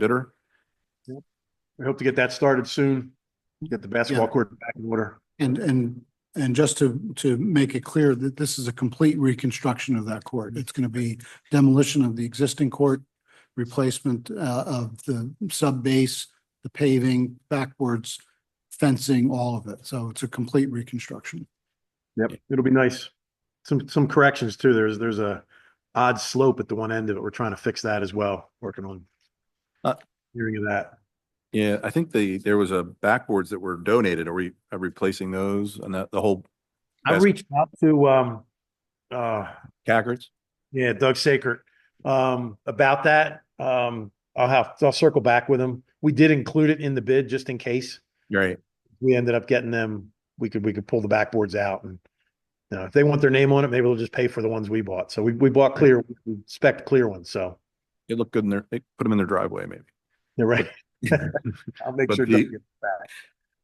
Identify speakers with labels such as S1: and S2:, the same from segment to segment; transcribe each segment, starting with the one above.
S1: bidder.
S2: We hope to get that started soon, get the basketball
S3: Yeah.
S2: court back in order.
S3: And, and, and just to, to make it clear that this is a complete reconstruction of that court. It's going to be demolition of the existing court, replacement uh, of the sub base, the paving, backwards, fencing, all of it. So it's a complete reconstruction.
S2: Yep, it'll be nice. Some, some corrections too. There's, there's a odd slope at the one end of it. We're trying to fix that as well, working on
S1: Uh,
S2: hearing of that.
S1: Yeah, I think the, there was a backboards that were donated. Are we are replacing those and that, the whole
S2: I
S1: Bas-
S2: reached out to, um, uh,
S1: Cackards?
S2: yeah, Doug Saker, um, about that. Um, I'll have, I'll circle back with him. We did include it in the bid just in case.
S1: Right.
S2: We ended up getting them, we could, we could pull the backboards out and you know, if they want their name on it, maybe they'll just pay for the ones we bought. So we, we bought clear, we spec clear ones, so.
S1: It looked good in their, they put them in their driveway maybe.
S2: You're right. I'll make
S1: But
S2: sure.
S1: the-
S2: Doug gets that.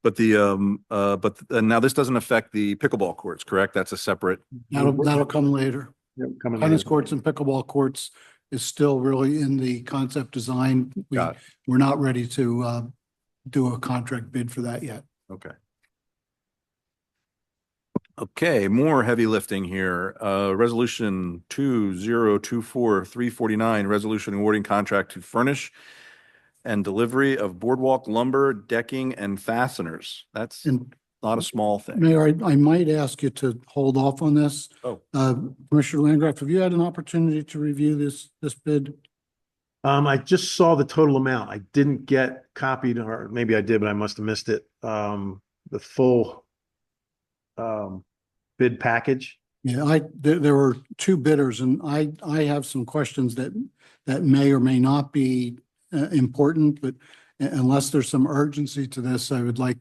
S1: But the, um, uh, but th- and now this doesn't affect the pickleball courts, correct? That's a separate,
S3: That'll, that'll come later.
S2: Yep, Coming.
S3: Tennis
S2: later.
S3: courts and pickleball courts is still really in the concept design. We,
S1: Got
S3: we're not ready to uh, do a contract bid for that yet.
S1: okay. Okay, more heavy lifting here. Uh, resolution two zero two four three forty nine, resolution awarding contract to furnish and delivery of boardwalk lumber, decking and fasteners. That's
S3: And
S1: not a small thing.
S3: Mayor, I, I might ask you to hold off on this.
S1: Oh.
S3: Uh, Commissioner Landgraf, have you had an opportunity to review this, this bid?
S2: Um, I just saw the total amount. I didn't get copied or maybe I did, but I must have missed it. Um, the full um, bid package.
S3: Yeah, I, there, there were two bidders and I, I have some questions that, that may or may not be uh, important, but u- unless there's some urgency to this, I would like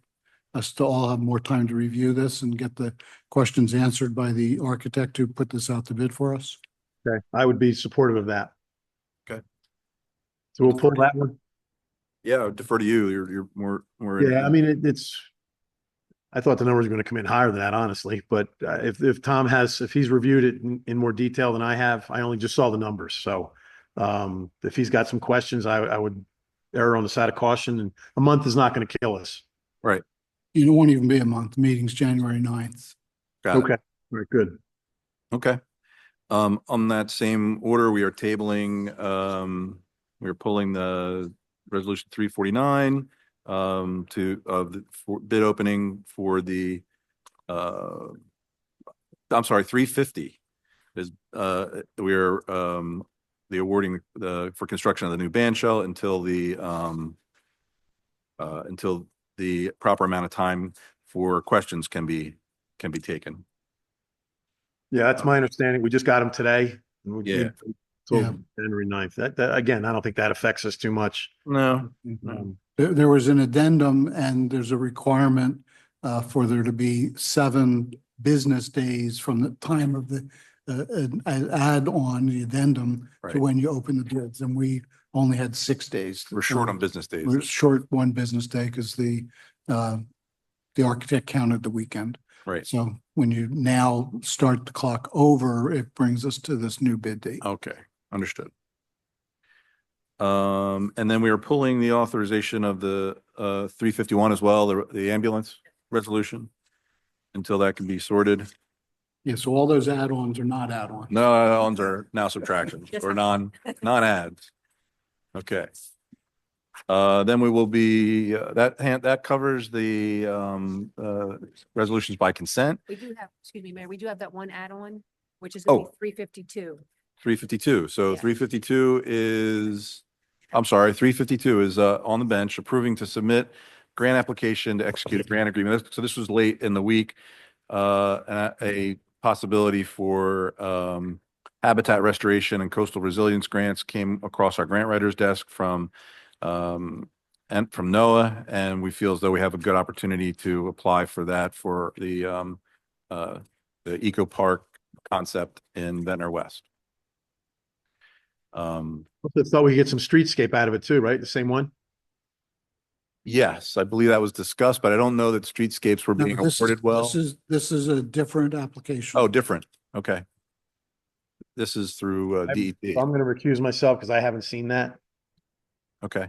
S3: us to all have more time to review this and get the questions answered by the architect who put this out to bid for us.
S2: Okay. I would be supportive of that.
S1: Okay.
S2: So we'll pull that one.
S1: Yeah, I would defer to you. You're, you're more, more.
S2: Yeah, I mean, it, it's, I thought the numbers were going to come in higher than that, honestly, but uh, if, if Tom has, if he's reviewed it in, in more detail than I have, I only just saw the numbers, so. Um, if he's got some questions, I, I would err on the side of caution and a month is not going to kill us.
S3: You won't even be a month, meeting's January 9th.
S1: Got it.
S2: Okay, very good.
S1: Okay. Um, on that same order, we are tabling, um, we're pulling the resolution three forty-nine um, to, of the for- bid opening for the, uh, I'm sorry, three fifty is, uh, we are, um, the awarding, the, for construction of the new band shell until the, um, uh, until the proper amount of time for questions can be, can be taken.
S2: Yeah, that's my understanding. We just got him today. and we-
S1: Yeah.
S2: Till
S3: Yeah.
S2: January 9th. That, that, again, I don't think that affects us too much.
S1: No,
S2: Um,
S3: There, there was an addendum and there's a requirement uh, for there to be seven business days from the time of the uh, an- an add on the addendum
S1: Right.
S3: to when you open the bids, and we only had six days.
S1: We're short on business days.
S3: We're short one business day because the uh, the architect counted the weekend.
S1: Right.
S3: So when you now start the clock over, it brings us to this new bid date.
S1: Okay, understood. Um, and then we are pulling the authorization of the uh three fifty-one as well, the the ambulance resolution. Until that can be sorted.
S3: Yeah, so all those add-ons are not add-ons.
S1: No, add-ons are now subtractions
S4: Yes.
S1: or non, non-ads. Okay. Uh, then we will be, uh, that hand, that covers the um uh resolutions by consent.
S4: We do have, excuse me, Mayor, we do have that one add-on, which is
S1: Oh.
S4: gonna be three fifty-two.
S1: Three fifty-two. So
S4: Yeah.
S1: three fifty-two is, I'm sorry, three fifty-two is uh, on the bench approving to submit grant application to execute a grant agreement. This- So this was late in the week. uh, and a- A possibility for um, habitat restoration and coastal resilience grants came across our grant writer's desk from um, and from NOAA, and we feel as though we have a good opportunity to apply for that for the um, uh, the eco park concept in Ventnor West. Um,
S2: I Thought we could get some streetscape out of it too, right? The same one?
S1: yes, I believe that was discussed, but I don't know that streetscapes were
S3: No,
S1: being
S3: this is-
S1: awarded well.
S3: This is, this is a different application.
S1: Oh, different. Okay. This is through uh, E
S2: I'm-
S1: DEP.
S2: I'm going to recuse myself because I haven't seen that.
S1: Okay.